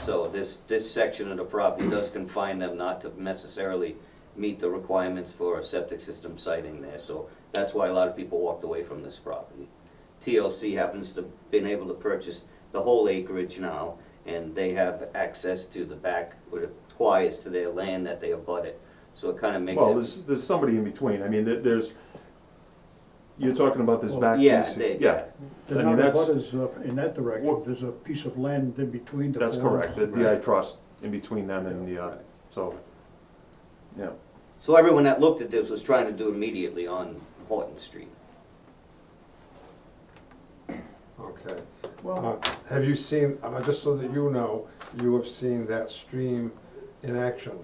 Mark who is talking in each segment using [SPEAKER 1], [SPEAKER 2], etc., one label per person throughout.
[SPEAKER 1] So this, this section of the property does confine them not to necessarily meet the requirements for a septic system siting there. So that's why a lot of people walked away from this property. TLC happens to been able to purchase the whole acreage now, and they have access to the back, where it acquires to their land that they abut it. So it kind of makes it.
[SPEAKER 2] Well, there's, there's somebody in between, I mean, there, there's, you're talking about this
[SPEAKER 3] Well,
[SPEAKER 2] back piece.
[SPEAKER 1] Yeah, they-
[SPEAKER 2] Yeah, I
[SPEAKER 3] The
[SPEAKER 2] mean,
[SPEAKER 3] other
[SPEAKER 2] that's-
[SPEAKER 3] butters uh, in that
[SPEAKER 2] Well-
[SPEAKER 3] direction, there's a piece of land in between the
[SPEAKER 2] that's
[SPEAKER 3] four
[SPEAKER 2] correct, the
[SPEAKER 3] houses.
[SPEAKER 2] DI trust in between them and the, uh, so, yeah.
[SPEAKER 1] So everyone that looked at this was trying to do immediately on Horton Street.
[SPEAKER 4] Okay. Uh,
[SPEAKER 3] Well,
[SPEAKER 4] Have you seen, uh, just so that you know, you have seen that stream in action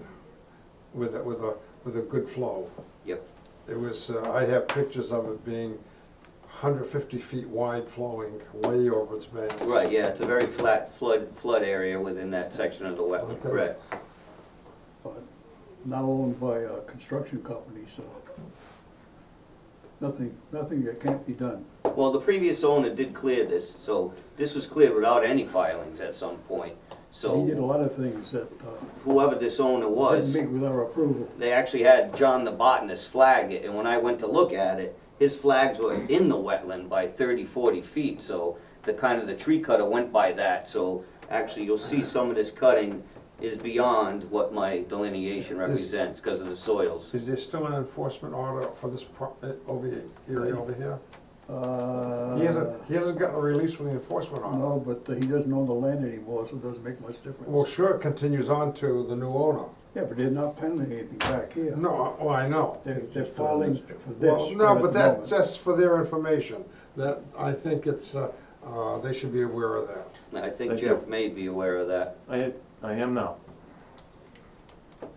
[SPEAKER 4] with, a- with a, with a good flow.
[SPEAKER 1] Yep.
[SPEAKER 4] It was, uh, I have pictures of it being 150 feet wide flowing way over its banks.
[SPEAKER 1] Right, yeah, it's a very flat flood, flood area within that section of the wetland,
[SPEAKER 4] Okay.
[SPEAKER 1] correct.
[SPEAKER 3] but now owned by a construction company, so nothing, nothing that can't be done.
[SPEAKER 1] Well, the previous owner did clear this, so this was cleared without any filings at some point.
[SPEAKER 3] He did a
[SPEAKER 1] So
[SPEAKER 3] lot of things that uh,
[SPEAKER 1] whoever this owner
[SPEAKER 3] didn't
[SPEAKER 1] was,
[SPEAKER 3] meet with our approval.
[SPEAKER 1] they actually had John the botanist flag it, and when I went to look at it, his flags were in the wetland by 30, 40 feet, so the kind of the tree cutter went by that, so actually you'll see some of this cutting is beyond what my delineation represents because of the soils.
[SPEAKER 4] Is there still an enforcement order for this pro, uh, over here, area over here? He hasn't, he hasn't gotten a release from the enforcement order.
[SPEAKER 3] Uh, No, but he doesn't own the land anymore, so it doesn't make much
[SPEAKER 4] Well,
[SPEAKER 3] difference.
[SPEAKER 4] sure, it continues on to the new owner.
[SPEAKER 3] Yeah, but they're not penning anything back here.
[SPEAKER 4] No, I- oh, I know.
[SPEAKER 3] They're, they're filing for this.
[SPEAKER 4] Well, no,
[SPEAKER 3] right at
[SPEAKER 4] but
[SPEAKER 3] the
[SPEAKER 4] that,
[SPEAKER 3] moment.
[SPEAKER 4] that's for their information, that, I think it's, uh, uh, they should be aware of that.
[SPEAKER 1] I think
[SPEAKER 2] Thank you.
[SPEAKER 1] Jeff may be aware of that.
[SPEAKER 2] I, I am now.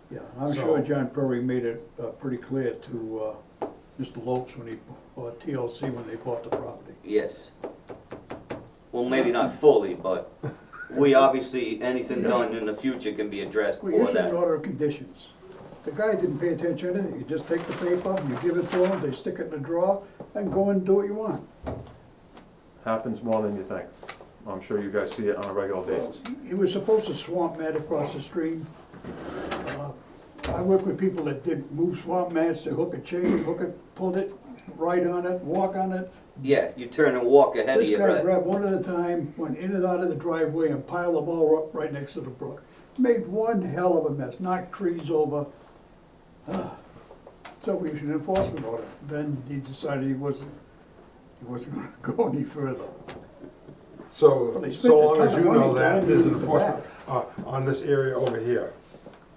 [SPEAKER 3] Yeah, I'm
[SPEAKER 4] So-
[SPEAKER 3] sure John Perry made it uh, pretty clear to uh, Mr. Lopes when he, or TLC when they bought the property.
[SPEAKER 1] Yes. Well, maybe not fully, but we obviously, anything done in the future can be addressed
[SPEAKER 3] We
[SPEAKER 1] for
[SPEAKER 3] issued an
[SPEAKER 1] that.
[SPEAKER 3] order of conditions. The guy didn't pay attention to it, you just take the paper, you give it to him, they stick it in a drawer, and go and do what you want.
[SPEAKER 2] Happens more than you think. I'm sure you guys see it on a regular basis.
[SPEAKER 3] He was supposed to swamp mat across the stream. Uh, I work with people that did move swamp mats, they hook a chain, hook it, pull it, ride on it, walk on it,
[SPEAKER 1] Yeah, you turn and walk ahead of
[SPEAKER 3] This
[SPEAKER 1] your
[SPEAKER 3] guy
[SPEAKER 1] breath.
[SPEAKER 3] grabbed one at a time, went in and out of the driveway and piled them all up right next to the brook. Made one hell of a mess, knocked trees over. Ah. So we issued an enforcement order. Then he decided he wasn't, he wasn't gonna go any further.
[SPEAKER 4] So,
[SPEAKER 3] Well, they
[SPEAKER 4] so
[SPEAKER 3] spent a
[SPEAKER 4] long
[SPEAKER 3] ton
[SPEAKER 4] as
[SPEAKER 3] of
[SPEAKER 4] you
[SPEAKER 3] money
[SPEAKER 4] know that,
[SPEAKER 3] going
[SPEAKER 4] there's
[SPEAKER 3] into the
[SPEAKER 4] enforcement, uh, on this area over here.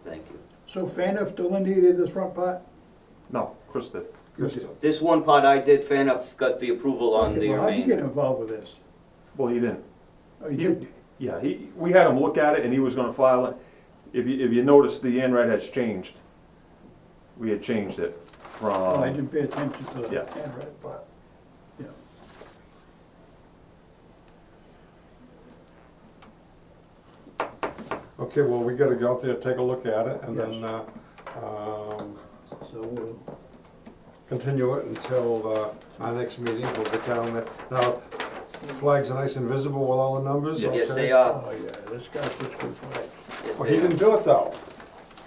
[SPEAKER 1] Thank you.
[SPEAKER 3] So Faniff delineated this front part?
[SPEAKER 2] No, Chris did.
[SPEAKER 1] This one part I did, fair enough, got the approval on the
[SPEAKER 3] Okay, well, how'd you get
[SPEAKER 1] remainder.
[SPEAKER 3] involved with this?
[SPEAKER 2] Well, he didn't.
[SPEAKER 3] Oh, you
[SPEAKER 2] He-
[SPEAKER 3] did?
[SPEAKER 2] Yeah, he, we had him look at it and he was gonna file it. If you, if you notice, the ANRAD has changed. We had changed it
[SPEAKER 3] Oh, I
[SPEAKER 2] from,
[SPEAKER 3] didn't pay attention to the
[SPEAKER 2] Uh, yeah.
[SPEAKER 3] handwriting part. Yeah.
[SPEAKER 4] Okay, well, we gotta go out there, take a look at it, and then, uh, um,
[SPEAKER 3] So, uh,
[SPEAKER 4] continue it until, uh, our next meeting, we'll get down there. Now, flags are nice and visible with all the numbers, okay?
[SPEAKER 1] Yes, they are.
[SPEAKER 3] oh yeah, this guy's such good fight.
[SPEAKER 1] Yes,
[SPEAKER 4] Well,
[SPEAKER 1] they
[SPEAKER 4] he didn't
[SPEAKER 1] are.
[SPEAKER 4] do it though.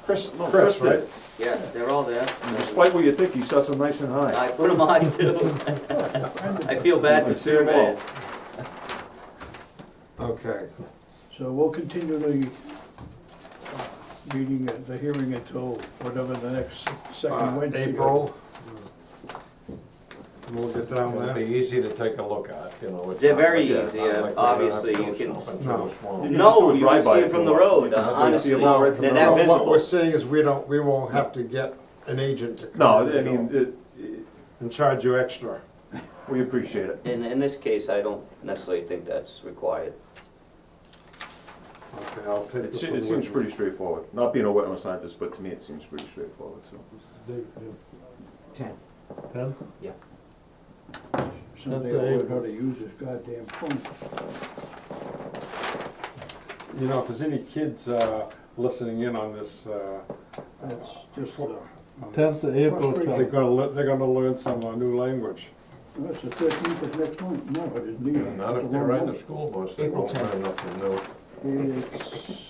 [SPEAKER 2] Chris, no, Chris
[SPEAKER 4] Chris,
[SPEAKER 2] did.
[SPEAKER 4] right?
[SPEAKER 1] Yeah, they're all there.
[SPEAKER 2] Despite what you think, he sets them nice and high.
[SPEAKER 1] I put them on too. I feel bad
[SPEAKER 2] I
[SPEAKER 1] for
[SPEAKER 2] see 'em all.
[SPEAKER 1] surveyors.
[SPEAKER 4] Okay.
[SPEAKER 3] So we'll continue the uh, meeting, uh, the hearing until whatever the next second
[SPEAKER 4] Uh,
[SPEAKER 3] Wednesday.
[SPEAKER 4] April. We'll get down
[SPEAKER 5] It'd be
[SPEAKER 4] there.
[SPEAKER 5] easy to take a look at, you know. it's
[SPEAKER 1] They're
[SPEAKER 5] not
[SPEAKER 1] very
[SPEAKER 5] like-
[SPEAKER 1] easy,
[SPEAKER 5] it's not
[SPEAKER 1] yeah,
[SPEAKER 5] like we're gonna have
[SPEAKER 1] obviously
[SPEAKER 5] to
[SPEAKER 1] you
[SPEAKER 5] go
[SPEAKER 1] can-
[SPEAKER 5] stomp into a
[SPEAKER 4] No.
[SPEAKER 5] swamp.
[SPEAKER 2] You can just do
[SPEAKER 1] No,
[SPEAKER 2] a
[SPEAKER 1] you can
[SPEAKER 2] drive-by
[SPEAKER 1] see them
[SPEAKER 2] if
[SPEAKER 1] from
[SPEAKER 2] you
[SPEAKER 1] the
[SPEAKER 2] want.
[SPEAKER 1] road,
[SPEAKER 2] You can
[SPEAKER 1] uh,
[SPEAKER 2] just see
[SPEAKER 1] honestly.
[SPEAKER 2] 'em all right from
[SPEAKER 1] They're
[SPEAKER 2] the
[SPEAKER 1] that
[SPEAKER 2] road.
[SPEAKER 4] No, What
[SPEAKER 1] visible.
[SPEAKER 4] we're saying is we don't, we won't have to get an agent to come.
[SPEAKER 2] No,
[SPEAKER 4] in
[SPEAKER 2] I
[SPEAKER 4] and do
[SPEAKER 2] mean,
[SPEAKER 4] it
[SPEAKER 2] it, it-
[SPEAKER 4] And charge you extra.
[SPEAKER 2] we appreciate it.
[SPEAKER 1] In, in this case, I don't necessarily think that's required.
[SPEAKER 4] Okay, I'll take
[SPEAKER 2] It
[SPEAKER 4] this
[SPEAKER 2] se-
[SPEAKER 4] one.
[SPEAKER 2] it seems
[SPEAKER 4] with me.
[SPEAKER 2] pretty straightforward. Not being a wetland scientist, but to me, it seems pretty straightforward, so.
[SPEAKER 6] Ten.
[SPEAKER 5] Ten?
[SPEAKER 3] Someday I'll learn how to use this goddamn phone.
[SPEAKER 4] You know, if there's any kids, uh, listening in on this, uh.
[SPEAKER 3] That's just, uh,
[SPEAKER 4] on
[SPEAKER 7] Tenth of
[SPEAKER 4] this,
[SPEAKER 7] April,
[SPEAKER 3] Frustrating.
[SPEAKER 4] They're
[SPEAKER 7] Tom.
[SPEAKER 4] gonna, le- they're gonna learn some uh, new language.
[SPEAKER 3] that's the thirteenth of next month, no, it isn't either.
[SPEAKER 5] Not if
[SPEAKER 3] It's
[SPEAKER 5] they're
[SPEAKER 3] wrong
[SPEAKER 5] riding the
[SPEAKER 3] month.
[SPEAKER 5] school bus, they
[SPEAKER 6] April
[SPEAKER 5] won't have
[SPEAKER 6] 10th.
[SPEAKER 5] enough to know.
[SPEAKER 3] It's